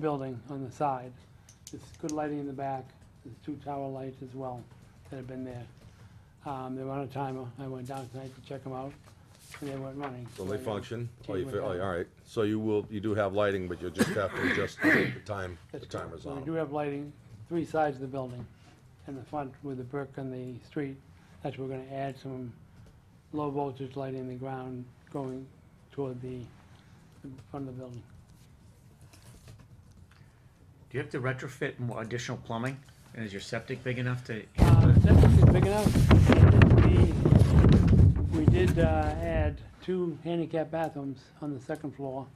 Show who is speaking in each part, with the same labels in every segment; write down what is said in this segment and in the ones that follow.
Speaker 1: building on the side. There's good lighting in the back, there's two tower lights as well that have been there. Um, They were on a timer, I went down tonight to check them out, and they weren't running.
Speaker 2: So they function? Oh, you,
Speaker 1: Change
Speaker 2: fi-
Speaker 1: my
Speaker 2: oh,
Speaker 1: time.
Speaker 2: all right. So you will, you do have lighting, but you'll just have to adjust the time, the
Speaker 1: That's
Speaker 2: timers
Speaker 1: So
Speaker 2: on
Speaker 1: we do
Speaker 2: 'em.
Speaker 1: have lighting, three sides of the building, and the front with the brick and the street. That's where we're gonna add some low voltage lighting in the ground going toward the the front of the building.
Speaker 3: Do you have to retrofit more additional plumbing? And is your septic big enough to?
Speaker 1: Uh, Septic is big enough. We- We did uh, add two handicap bathrooms on the second floor.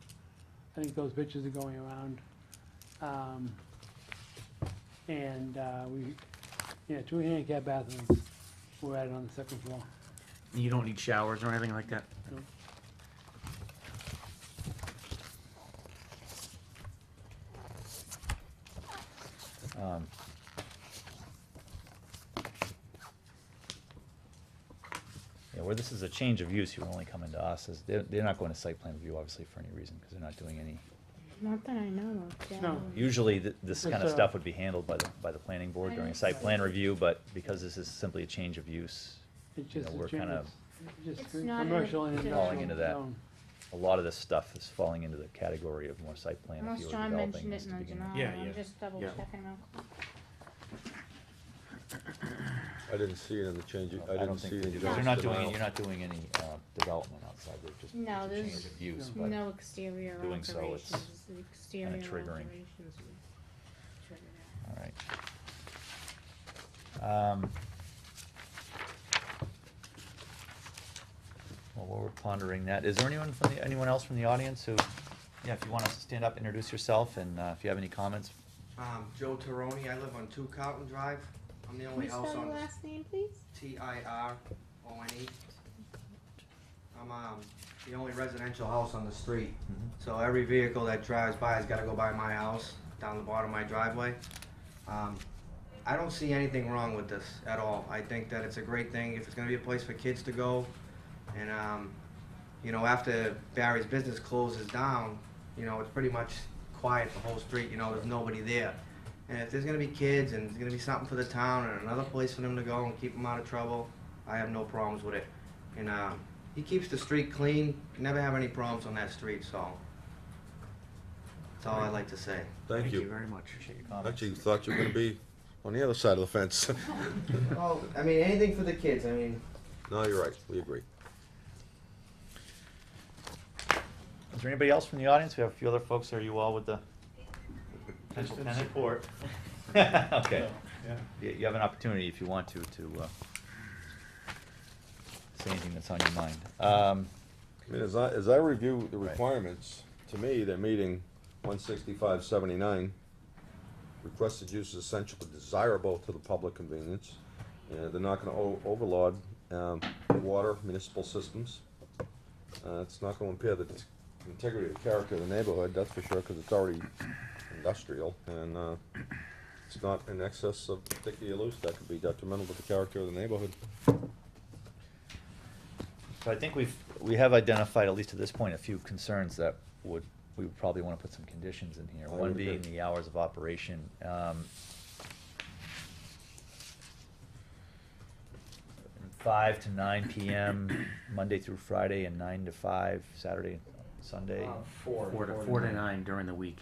Speaker 1: I think those pictures are going around. Um, And uh, we, yeah, two handicap bathrooms were added on the second floor.
Speaker 3: You don't need showers or anything like that?
Speaker 1: No.
Speaker 4: Um, Yeah, where this is a change of use, you're only coming to us, is, they're, they're not going to site plan review, obviously, for any reason, because they're not doing any.
Speaker 5: Not that I know of, Dad.
Speaker 1: No.
Speaker 4: Usually, th- this kind of
Speaker 1: It's, uh,
Speaker 4: stuff would be handled by the, by the planning board during a site plan review, but because this is simply a change of use,
Speaker 1: It's
Speaker 4: You know,
Speaker 1: just a
Speaker 4: we're
Speaker 1: change,
Speaker 4: kinda
Speaker 1: it's just
Speaker 5: It's not in the
Speaker 1: commercial and
Speaker 5: decision.
Speaker 1: industrial.
Speaker 4: Falling into that.
Speaker 1: zone.
Speaker 4: a lot of this stuff is falling into the category of more site plan if
Speaker 5: Unless
Speaker 4: you were
Speaker 5: John
Speaker 4: developing
Speaker 5: mentioned it
Speaker 4: this
Speaker 5: in
Speaker 4: to
Speaker 5: the
Speaker 4: begin with.
Speaker 5: Janelle,
Speaker 3: Yeah, yeah.
Speaker 5: I'm just double
Speaker 3: Yeah.
Speaker 5: checking now.
Speaker 2: I didn't see it in the change, I
Speaker 4: I
Speaker 2: didn't
Speaker 4: don't
Speaker 2: see it
Speaker 4: think, they
Speaker 2: in
Speaker 4: do.
Speaker 2: John's
Speaker 4: they're not doing,
Speaker 2: denial.
Speaker 4: it- you're not doing any, uh, development outside, they're just,
Speaker 5: No,
Speaker 4: it's a
Speaker 5: there's
Speaker 4: change of use,
Speaker 1: no-
Speaker 4: but.
Speaker 5: No exterior
Speaker 4: doing
Speaker 5: operations,
Speaker 4: so, it's
Speaker 5: exterior operations.
Speaker 4: triggering.
Speaker 5: would trigger
Speaker 4: All right. Um, Well, while we're pondering that, is there anyone from the, anyone else from the audience who, yeah, if you want us to stand up, introduce yourself, and uh, if you have any comments,
Speaker 6: Um, Joe Taroni, I live on Two Carlton Drive. I'm the
Speaker 5: that. Can
Speaker 6: only
Speaker 5: you
Speaker 6: house
Speaker 5: spell
Speaker 6: on
Speaker 5: the last name, please?
Speaker 6: T I R O N E. I'm, um, the only residential house on the street. So every vehicle that drives by has gotta go by my house, down the bottom of my driveway. Um, I don't see anything wrong with this at all. I think that it's a great thing, if it's gonna be a place for kids to go. And, um, you know, after Barry's business closes down, you know, it's pretty much quiet the whole street, you know, there's nobody there. And if there's gonna be kids and there's gonna be something for the town and another place for them to go and keep them out of trouble, I have no problems with it. And, um, he keeps the street clean, never have any problems on that street, so. That's all I'd like to say.
Speaker 2: Thank you.
Speaker 3: very much.
Speaker 4: comments?
Speaker 2: Actually, you thought you were gonna be on the other side of the fence.
Speaker 6: Well, I mean, anything for the kids, I mean.
Speaker 2: No, you're right, we agree.
Speaker 4: Is there anybody else from the audience? We have a few other folks. Are you all with the? Just in support. Okay. You, you have an opportunity if you want to, to, uh, say anything that's on your mind. Um,
Speaker 2: I mean, as I, as I review the
Speaker 4: Right.
Speaker 2: requirements, to me, they're meeting one sixty-five seventy-nine. Requested use is essential but desirable to the public convenience. And they're not gonna o- overload, um, water municipal systems. Uh, it's not gonna impair the integrity of character of the neighborhood, that's for sure, cause it's already industrial and, uh, it's not in excess of particular use that could be detrimental to the character of the neighborhood.
Speaker 4: So I think we've, we have identified, at least at this point, a few concerns that would, we would probably wanna put some conditions in
Speaker 3: Oh,
Speaker 4: here.
Speaker 2: I
Speaker 4: One
Speaker 2: would agree.
Speaker 4: being the hours of operation. um, Five to nine PM, Monday through Friday, and nine to five, Saturday, Sunday.
Speaker 7: Uh,
Speaker 3: Four to, four to nine during the week,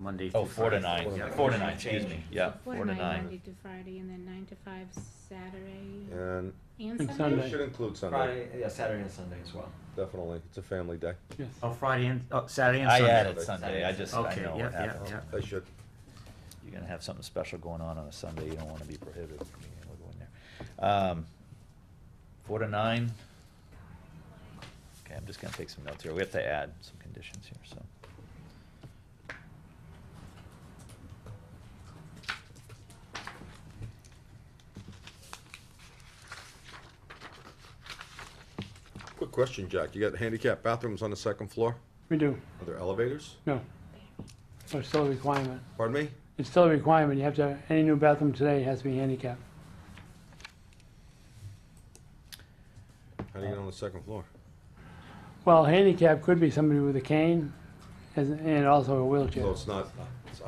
Speaker 3: Monday through
Speaker 4: Oh, four to
Speaker 3: Friday.
Speaker 4: nine,
Speaker 3: Yeah.
Speaker 4: four to nine, excuse me, yeah,
Speaker 5: So
Speaker 4: four to
Speaker 5: Monday
Speaker 4: nine.
Speaker 5: to Friday, and then nine to five Saturday
Speaker 2: And
Speaker 1: And
Speaker 5: and
Speaker 2: it
Speaker 1: Sunday.
Speaker 5: Sunday?
Speaker 2: should include Sunday,
Speaker 7: Friday, yeah, Saturday and Sunday as well.
Speaker 2: definitely, it's a family day.
Speaker 1: Yes.
Speaker 3: Oh, Friday and, oh, Saturday and
Speaker 4: I
Speaker 3: Sunday.
Speaker 4: added Sunday, I just, I
Speaker 3: Okay,
Speaker 4: know
Speaker 3: yeah,
Speaker 4: what
Speaker 3: yeah,
Speaker 4: happened.
Speaker 3: yeah.
Speaker 2: They should.
Speaker 4: you're gonna have something special going on on a Sunday, you don't wanna be prohibited from being able to go in there. Um, Four to nine. Okay, I'm just gonna take some notes here, we have to add some conditions here, so.
Speaker 2: Quick question, Jack. You got handicap bathrooms on the second floor?
Speaker 1: We do,
Speaker 2: Are there elevators?
Speaker 1: no. So It's still a requirement.
Speaker 2: Pardon me?
Speaker 1: It's still a requirement, you have to, any new bathroom today has to be handicapped.
Speaker 2: How do you get on the second floor?
Speaker 1: Well, handicap could be somebody with a cane,
Speaker 8: as- and also a wheelchair.
Speaker 1: So it's not, it's